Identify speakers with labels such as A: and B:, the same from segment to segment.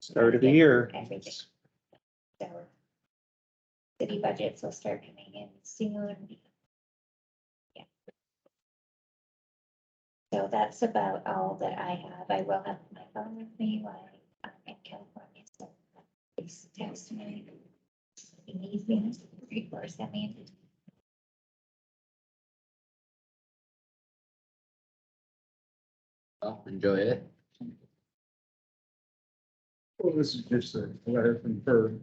A: start of the year.
B: Everything. So City budgets will start coming in soon. Yeah. So that's about all that I have. I will have my phone with me while I'm in California. So please text me. if you need me, or send me. an
C: Well, enjoy it.
D: Well, this is just a letter from her.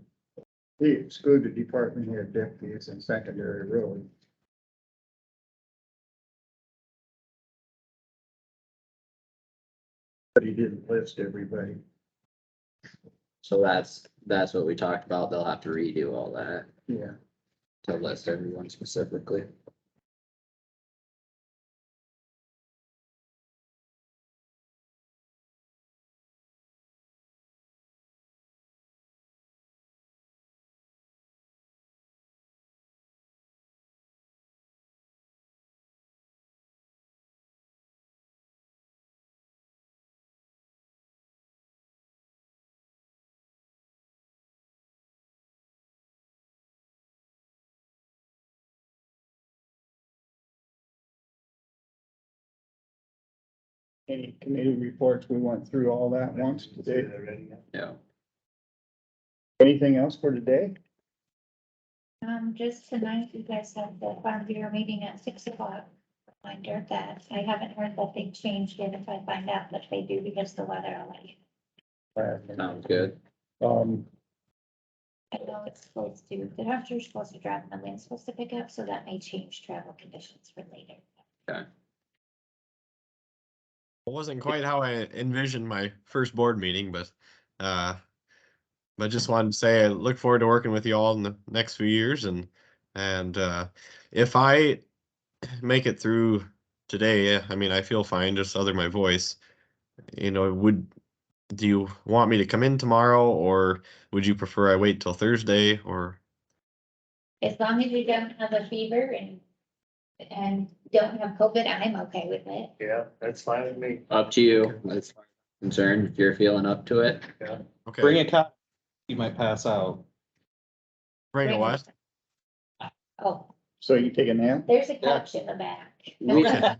D: We exclude the department head deputies and secondary road. But he didn't list everybody.
C: So that's, that's what we talked about. They'll have to redo all that
D: Yeah.
C: to list everyone specifically.
D: Any committee reports, we went through all that once today.
C: Yeah.
D: Anything else for today?
B: Um, just tonight, you guys have the farm bureau meeting at six o'clock. Reminder of that I haven't heard that they changed it. If I find out that they do because the weather, I'll let you.
C: Sounds good.
D: Um,
B: I know it's supposed to, the temperature's supposed to drop and the wind's supposed to pick up, so that may change travel conditions for later.
E: It wasn't quite how I envisioned my first board meeting, but uh, but just wanted to say I look forward to working with you all in the next few years, and and uh, if I make it through today, eh, I mean I feel fine. Just other my voice, you know. Would do you want me to come in tomorrow, or would you prefer I wait till Thursday? Or
B: As long as you don't have a fever and, and don't have COVID, I'm okay with it.
F: Yeah, that's fine with me.
C: Up to you. That's concerned if you're feeling up to it.
E: okay,
A: Bring a cop, you might pass out.
E: bring a what?
B: Oh,
D: so you take a nap?
B: there's a couch in the back.
C: We have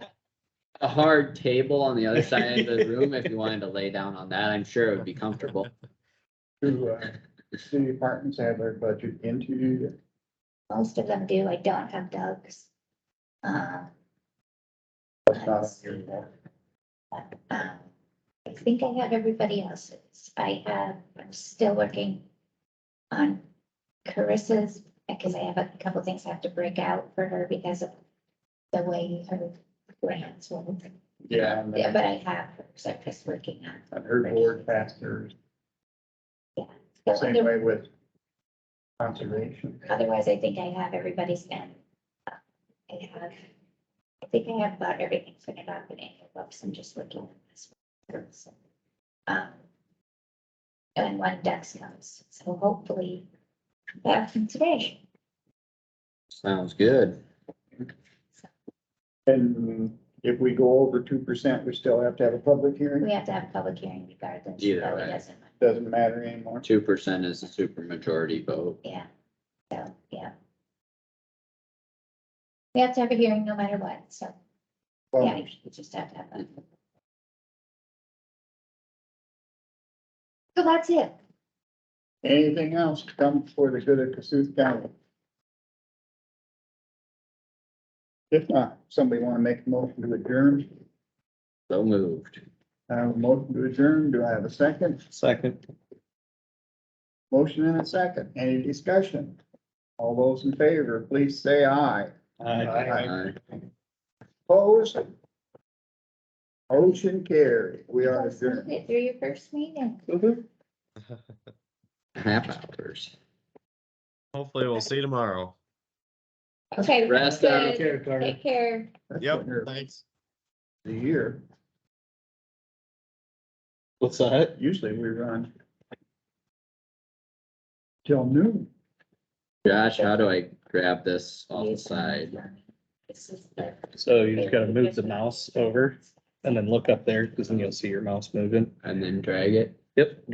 C: A hard table on the other side of the room if you wanted to lay down on that. I'm sure it would be comfortable.
D: Do, uh, city departments have their budget into
B: Most of them do. I don't have Doug's. Um,
D: That's not on your book.
B: Um, I think I have everybody else's. I have, I'm still working on Carissa's because I have a couple things I have to break out for her because of the way her grants work.
D: Yeah. and
B: Yeah,
D: then-
B: but I have, her, so I'm just working on.
D: And her board pastors,
B: so
D: same
B: other-
D: way with conservation.
B: Otherwise, I think I have everybody's in. Uh, I have, I think I have about everything figured out in envelopes. I'm just working on this. one. So, um, And one desk comes, so hopefully that happens today.
C: Sounds good.
D: And if we go over two percent, we still have to have a public hearing?
B: We have to have a public hearing regardless.
C: Either
B: so it
C: way.
B: doesn't matter.
D: Doesn't matter anymore.
C: Two percent is a super majority vote.
B: Yeah, so, yeah. We have to have a hearing no matter what, so, yeah,
D: Well,
B: you just have to have that. So that's it.
D: Anything else to come for the good of Cassuth County? If not, somebody want to make a motion to adjourn,
C: So moved.
D: I have a motion to adjourn, do I have a second?
A: Second.
D: Motion and a second, any discussion? All those in favor, please say aye.
F: Aye.
C: Aye.
D: Opposed? Motion carried, we are adjourned.
B: Through your first meeting.
C: Half hours.
E: Hopefully, we'll see you tomorrow.
B: Okay.
C: Rest
B: good.
C: up.
F: Care, Carter.
B: Take care.
D: That's
E: Yep,
D: what you're-
E: thanks.
D: The year,
A: What's that?
D: usually we run till noon.
C: Josh, how do I grab this off the side?
B: This is the-
F: So you just gotta move the mouse over and then look up there, because then you'll see your mouse moving.
C: and then drag it.